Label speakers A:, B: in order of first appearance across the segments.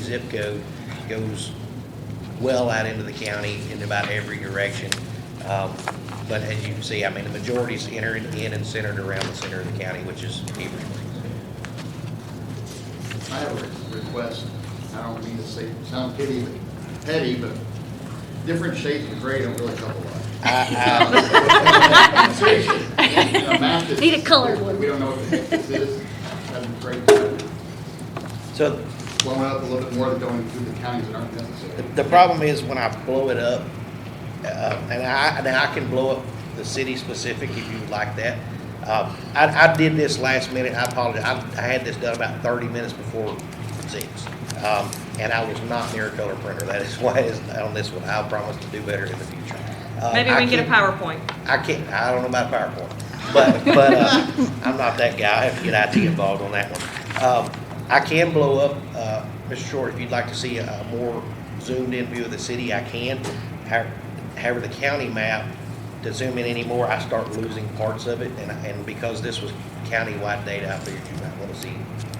A: zip code goes well out into the county in about every direction. Um, But as you can see, I mean, the majority is entered in and centered around the center of the county, which is Heber Springs.
B: I have a request, I don't mean to say, sound petty, but- petty, but different shades of gray don't really help a lot.
A: I-
B: Seriously. You know, math is-
C: Need a colored one.
B: We don't know what the heck this is, hasn't great, blown
A: I- So
B: up a little bit more than going through the counties that aren't
A: The-
B: necessary.
A: The problem is when I blow it up, uh, and I, and I can blow up the city specific if you would like that. Um, I, I did this last minute, I apologize, I, I had this done about thirty minutes before six. Um, and I was not near a color printer, that is why it's on this one, I promise to do better in the future. Uh,
D: Maybe we
A: I
D: can get a
A: keep-
D: PowerPoint.
A: I can't, I don't know about PowerPoint, but, but, uh, I'm not that guy, I have to get IT involved on that one. Um, I can blow up, uh, Mr. Short, if you'd like to see a more zoomed-in view of the city, I can. How- However, the county map, to zoom in anymore, I start losing parts of it, and, and because this was county-wide data, I figured you might wanna see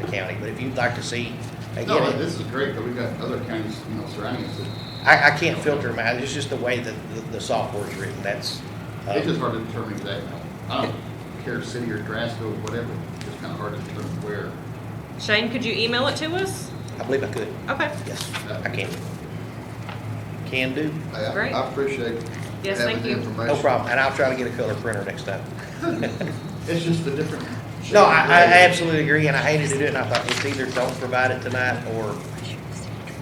A: the county, but if you'd like to see,
B: No,
A: again,
B: this is great, but we've got other counties, you know, surrounding us, that-
A: I, I can't filter them out, it's just the way that the, the software's written, that's. uh,
B: it's just hard to determine exactly. I don't care, city or Drasco, whatever, it's kind of hard to determine where.
D: Shane, could you email it to us?
A: I believe I could.
D: Okay.
A: Yes, I can. Can do,
B: I- I-
D: Great.
B: I appreciate.
D: Yes,
B: having
D: thank
B: the
D: you.
B: information.
A: no problem, and I'll try to get a color printer next time.
B: It's just the different. shades
A: No,
B: of
A: I, I
B: gray.
A: absolutely agree, and I hated to do it, and I thought it's either don't provide it tonight, or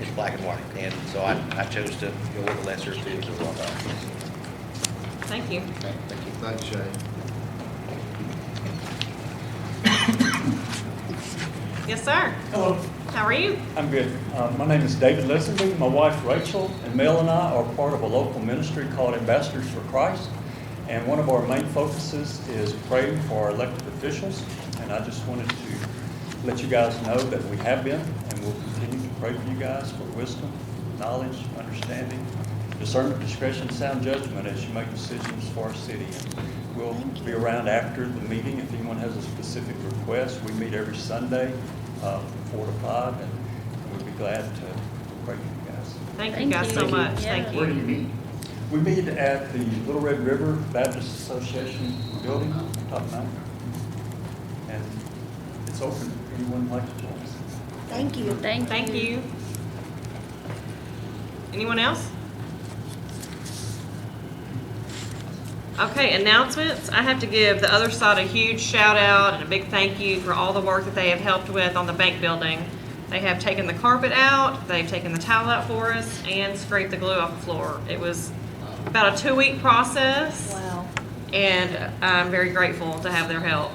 A: it's black and white, and so I, I chose to go with the lesser of two evils.
D: Thank
B: Thank
D: you.
B: you. Thanks, Shay.
D: Yes, sir.
E: Hello,
D: How are you?
E: I'm good. Uh, My name is David Leslie. My wife Rachel and Mel and I are part of a local ministry called Ambassadors for Christ. And one of our main focuses is praying for our elected officials. And I just wanted to let you guys know that we have been and will continue to pray for you guys for wisdom, knowledge, understanding, discernment, discretion, sound judgment as you make decisions for our city. And We'll be around after the meeting if anyone has a specific request. We meet every Sunday uh, from four to five, and we'd be glad to pray for you guys.
D: Thank you
C: Thank
D: guys
C: you.
D: so
C: Thank you.
D: much.
C: Yeah.
D: Thank
B: Where do
D: you.
B: you meet?
E: We meet at the Little Red River Baptist Association building, top nine. And it's open, if anyone would like to join us.
C: Thank you. Thank you.
D: Thank you. Anyone else? Okay, announcements. I have to give the other side a huge shout out and a big thank you for all the work that they have helped with on the bank building. They have taken the carpet out, they've taken the towel out for us, and scraped the glue off the floor. It was about a two-week process.
C: Wow.
D: And I'm very grateful to have their help.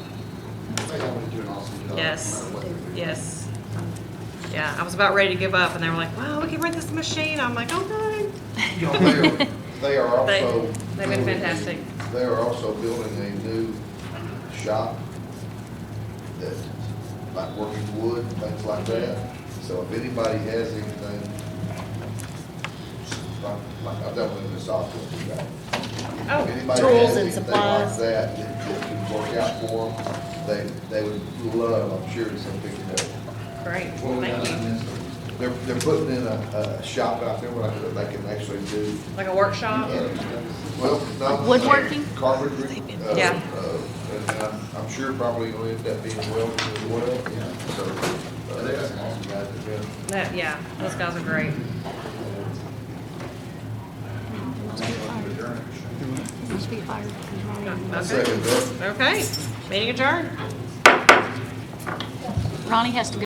B: They always do an awesome job.
D: Yes.
B: No matter what they do.
D: Yes. Yeah, I was about ready to give up, and they were like, "Wow, we can rent this machine." I'm like, "Oh, "Okay."
B: You know, They are- they are
D: They-
B: also.
D: they've been fantastic.
B: They are also building a new shop that, like working wood, things like that. So if anybody has anything, like, like I've done with the software, you guys. If
D: Oh,
B: anybody
C: Tools
B: has
C: and
B: anything
C: supplies.
B: Like that, that that can work out for them, they, they would love, I'm sure, some picking up.
D: great!
B: Well,
D: Thank you.
B: They're, they're putting in a, a shop out there where they can actually do,
D: Like a workshop.
B: uh, well, not.
C: Woodworking?
B: Carpentry. uh,
D: Yeah.
B: uh, And I'm, I'm sure probably gonna end up being welding as well, yeah, so. uh, they got some awesome guys that do it.
D: That, yeah, those guys are great.
C: You should be fired.
B: I
D: Okay.
B: second that.
D: Okay. Meeting adjourned.
C: Ronnie has to go.